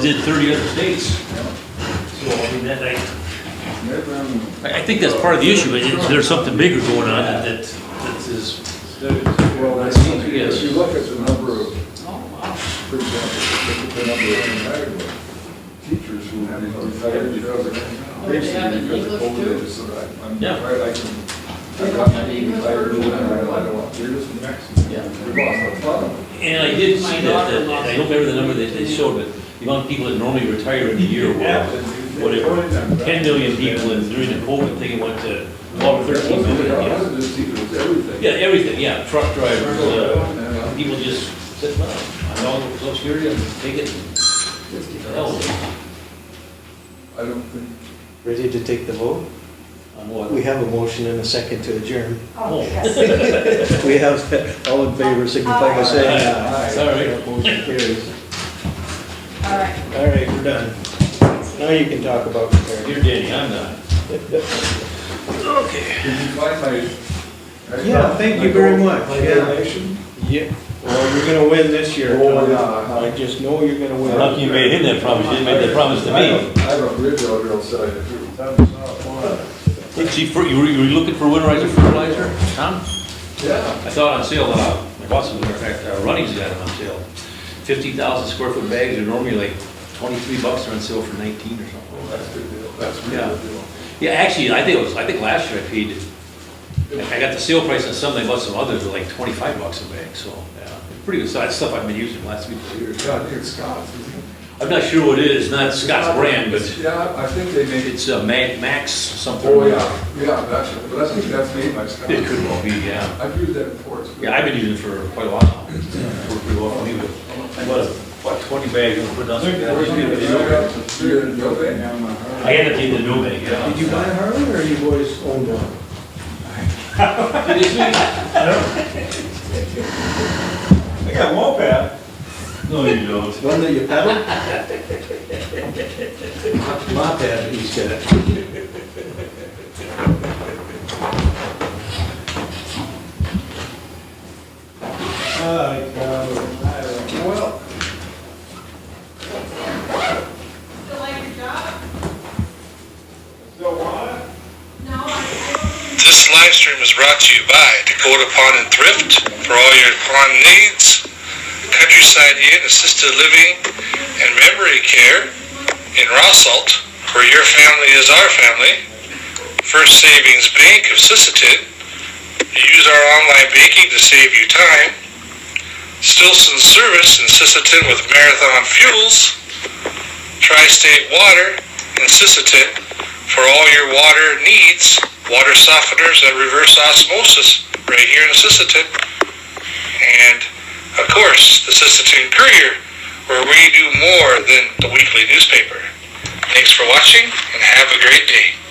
did thirty other states. So, I mean, that, I, I I think that's part of the issue, is is there's something bigger going on that, that that is, Well, I seems think if you look at the number of, for example, look at the number of retired teachers who have retired because of, But they have basically because of an English COVID, too? it's, that I- I'm Yeah. afraid I can, They I don't got have my an eighty English retired version. and I don't want, they're just next. Yeah. We lost our fun. and I did see that, that, I don't remember the number that they showed, but the amount of people that normally retire in a year were whatever, ten million people, and during the COVID thing, it went to twelve, There thirteen wasn't, million. it yeah. wasn't just teachers, it was everything. Yeah, everything, yeah, truck drivers, uh, And, people just said, well, I'm all social security, I'm taking, hell, with it." uh, I don't think, Ready to take the vote? on what? We have a motion and a second to adjourn. Oh. Oh, yes. We have, all in favor, signify by saying aye. uh, Sorry. Motion carries. All right. All right, we're done. Now you can talk about Here, preparing. Danny, I'm not. did you find my? I Yeah, found thank my you very gold- much, My yeah. donation? Yeah, well, you're gonna win this year. Oh, Tom. yeah. I just know you're gonna win. Lucky you made him that promise, you didn't make that promise to I me. have- I have a bridge over here, I'll sell you. Hey, Chief, you were, you were looking for winterizer fertilizer, Tom? Yeah. I saw it on sale, uh, my boss, as a matter of fact, uh, Running's got it on sale. Fifty thousand square foot bags are normally like twenty-three bucks, they're on sale for nineteen or something. Well, That's a good deal, that's a Yeah. good deal. Yeah, actually, I think it was, I think last year I paid, I I got the sale price on some, they bought some others at like twenty-five bucks a bag, so, yeah. it's Pretty good size stuff I've been using the last week or years. Yeah, I think it's Scott's. isn't it? I'm not sure what it is, not Scott's brand, but Yeah, I think they make it, it's uh, Ma- Max something. oh, yeah, yeah, that's, but I think that's made by Scott. It could well be, yeah. I've used that before. it's good. Yeah, I've been using it for quite a while now. Worked pretty well for me, but I bought about twenty bags and put it on. Yeah, we did it. You got to see it in the oven. I ended up getting the new bag, yeah. Did you buy a Harley or you boys own one? I got a moped. No, you don't. One that you pedal? My pad, he's got it. Well, Still like your job? So what? No, I, I don't. This live stream is brought to you by Dakota Pond and Thrift for all your pond needs, Countryside Inn, assisted living, and memory care in Rossalt, where your family is our family. First Savings Bank of Sisseton. Use our online banking to save you time. Stilson Service in Sisseton with Marathon Fuels. Tri-State Water in Sisseton for all your water needs water softeners and reverse osmosis right here in Sisseton. And of course, the Sisseton Courier, where we do more than the weekly newspaper. Thanks for watching and have a great day.